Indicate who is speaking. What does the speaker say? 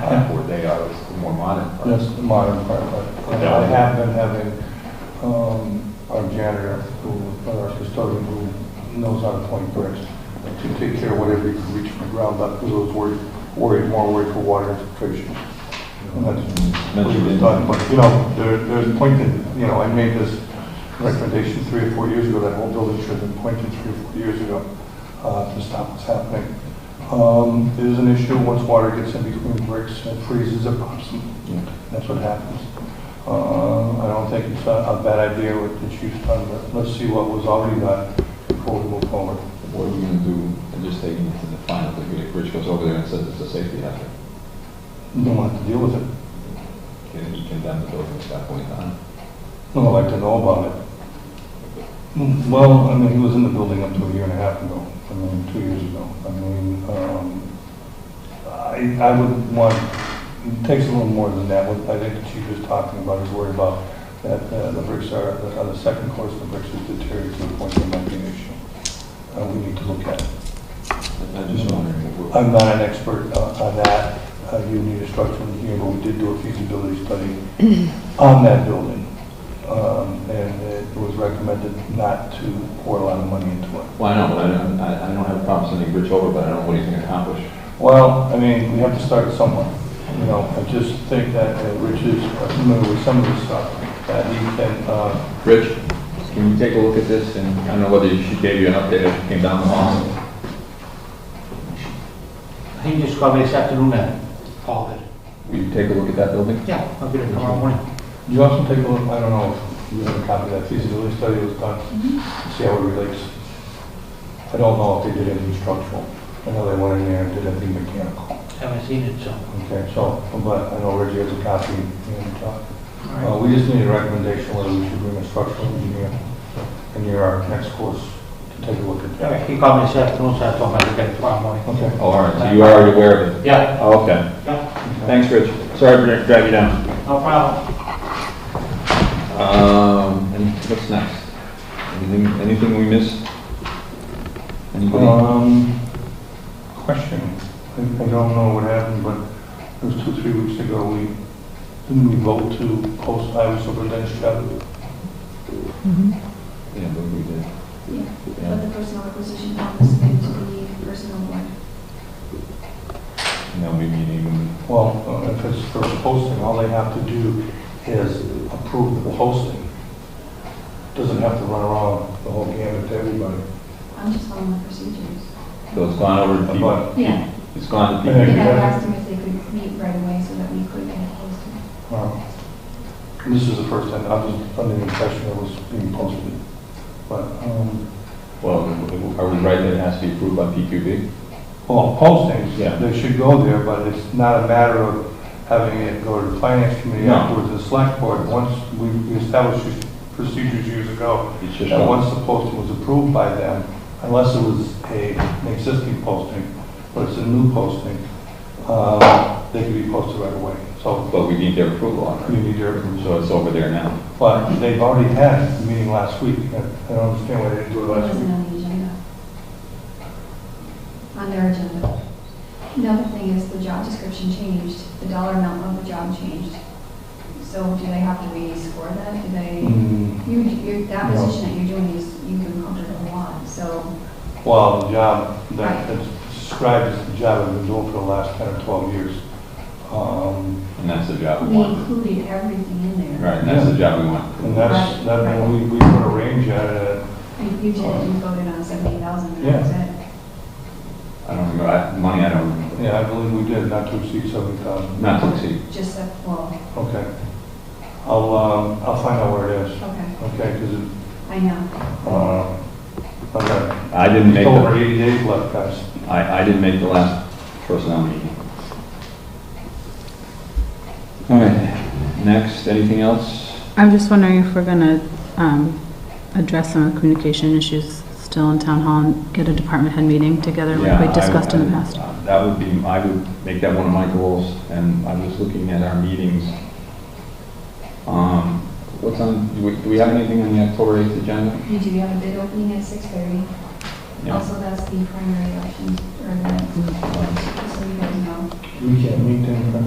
Speaker 1: have, where they are, is the more modern part.
Speaker 2: That's the modern part, but I have been having, um, our janitor who, or our custodian who knows how to point bricks to take care of whatever you can reach from the ground up, because I was worried, worried, more worried for water infiltration. And that's what was done, but, you know, there, there's pointed, you know, I made this recommendation three or four years ago, that whole building should have been pointed three or four years ago, uh, to stop what's happening. Um, there's an issue, once water gets in between bricks, it freezes, it pops, and that's what happens. Uh, I don't think it's a, a bad idea what the chief's done, but let's see what was already done before we move forward.
Speaker 1: What are we gonna do, and just taking it to the final, if Rich goes over there and says it's a safety hazard,
Speaker 2: You don't have to deal with it,
Speaker 1: can he condemn the building at that point on?
Speaker 2: no one like to know about it. Mm, Well, I mean, he was in the building up to a year and a half ago, I mean, two years ago. I mean, um, I, I would want, it takes a little more than that, what I think the chief is talking about, is worried about that uh, the bricks are, the- on the second course, the bricks is deteriorating to the point there might be an issue. Uh, we need to look at it.
Speaker 1: I'm just wondering if we're,
Speaker 2: I'm not an expert uh, on that. Uh, You need a structural engineer, but we did do a feasibility study on that building. Um, And it was recommended not to pour a lot of money into it.
Speaker 1: well, I know, but I don't, I, I don't have a problem sending Rich over, but I don't know what he's gonna accomplish.
Speaker 2: Well, I mean, we have to start somewhere. You know, I just think that uh, Rich is familiar with some of this stuff, that he can, uh,
Speaker 1: Rich, can you take a look at this, and I don't know whether she gave you an update as she came down the hall?
Speaker 3: He just called me this afternoon and called it.
Speaker 1: Will you take a look at that building?
Speaker 3: Yeah, I'll get it tomorrow morning.
Speaker 2: you also take a look, I don't know if you have a copy of that feasibility study that was done, see how it relates. I don't know if they did anything structural. I know they went in there and did anything mechanical.
Speaker 3: Haven't seen it, so.
Speaker 2: Okay, so, but I know Reggie has a copy, and, uh,
Speaker 3: All
Speaker 2: uh,
Speaker 3: right.
Speaker 2: we just need a recommendation whether we should bring a structural engineer in your our next course to take a look at
Speaker 3: All
Speaker 2: that.
Speaker 3: right, He called me this afternoon, so I told him I'd get it tomorrow morning.
Speaker 2: Okay.
Speaker 1: Oh, all right, so you are already aware of it?
Speaker 3: Yeah,
Speaker 1: Oh, okay.
Speaker 3: yeah,
Speaker 1: Thanks, Rich. Sorry for dragging you down.
Speaker 3: no problem.
Speaker 1: Um, and what's next? Anything, anything we missed? Anybody?
Speaker 2: Um, question, I I don't know what happened, but it was two, three weeks ago, we, didn't we vote to post highway superintendent's job?
Speaker 1: Yeah, but we did.
Speaker 4: Yeah,
Speaker 1: Yeah.
Speaker 4: But the personal acquisition office came to the personal one.
Speaker 1: And then we meet even,
Speaker 2: Well, uh, if it's for posting, all they have to do is approve the posting. Doesn't have to run around the whole gamut to everybody.
Speaker 4: I'm just following the procedures.
Speaker 1: so it's gone over to people.
Speaker 2: But
Speaker 4: Yeah,
Speaker 1: It's gone to
Speaker 2: Yeah.
Speaker 4: and
Speaker 1: people.
Speaker 4: I asked them if they could meet right away so that we could get it posted.
Speaker 2: Um, This is the first time, I was under the impression it was being posted, but, um,
Speaker 1: Well, are we right that it has to be approved by PQB?
Speaker 2: well, postings,
Speaker 1: Yeah.
Speaker 2: they should go there, but it's not a matter of having it go to the finance committee
Speaker 1: No.
Speaker 2: afterwards, the select board, once we we established these procedures years ago,
Speaker 1: It's just,
Speaker 2: that
Speaker 1: a-
Speaker 2: once the posting was approved by them, unless it was a, an existing posting, but it's a new posting, um, they could be posted right away, so
Speaker 1: but we need their approval on
Speaker 2: you
Speaker 1: it.
Speaker 2: need their approval.
Speaker 1: So it's over there now.
Speaker 2: But they've already had a meeting last week. I I don't understand why they didn't do it
Speaker 4: It
Speaker 2: last
Speaker 4: wasn't
Speaker 2: week.
Speaker 4: on the agenda. On their agenda. Another thing is the job description changed, the dollar amount of the job changed. So do they have to re-score that? Do they,
Speaker 2: Mm,
Speaker 4: you, you, that
Speaker 2: No.
Speaker 4: position that you're doing is, you can alter the law, so,
Speaker 2: Well, the job that it's described as the job I've been doing for the last 10 or 12 years. Um,
Speaker 1: And that's the job we
Speaker 4: they
Speaker 1: want.
Speaker 4: included everything in there.
Speaker 1: Right, and that's the job we want.
Speaker 2: And that's, that, and we, we put a range at it.
Speaker 4: And You did, you voted on seventy thousand,
Speaker 2: Yeah.
Speaker 4: that's it.
Speaker 1: I don't remember, I- money I don't remember.
Speaker 2: Yeah, I believe we did, not to exceed 70,000.
Speaker 1: Not to exceed.
Speaker 4: Just that, well,
Speaker 2: Okay. I'll, um, I'll find out where it is.
Speaker 4: okay,
Speaker 2: Okay, because it,
Speaker 4: I know.
Speaker 2: uh, okay.
Speaker 1: I didn't make
Speaker 2: Still
Speaker 1: the
Speaker 2: over 80 days left, guys.
Speaker 1: I, I didn't make the last personnel meeting. All right, next, anything else?
Speaker 5: I'm just wondering if we're gonna um, address some of the communication issues still in town hall and get a department head meeting together
Speaker 1: Yeah,
Speaker 5: like we
Speaker 1: I-
Speaker 5: discussed in the
Speaker 1: I-
Speaker 5: past.
Speaker 1: That would be, I would make that one of my goals, and I was looking at our meetings. Um, What's on, do we- do we have anything on the October 8th agenda?
Speaker 4: You do have a bid opening at six thirty.
Speaker 1: Yeah.
Speaker 4: Also, that's the primary election, or the, just so you guys know.
Speaker 2: We can't meet in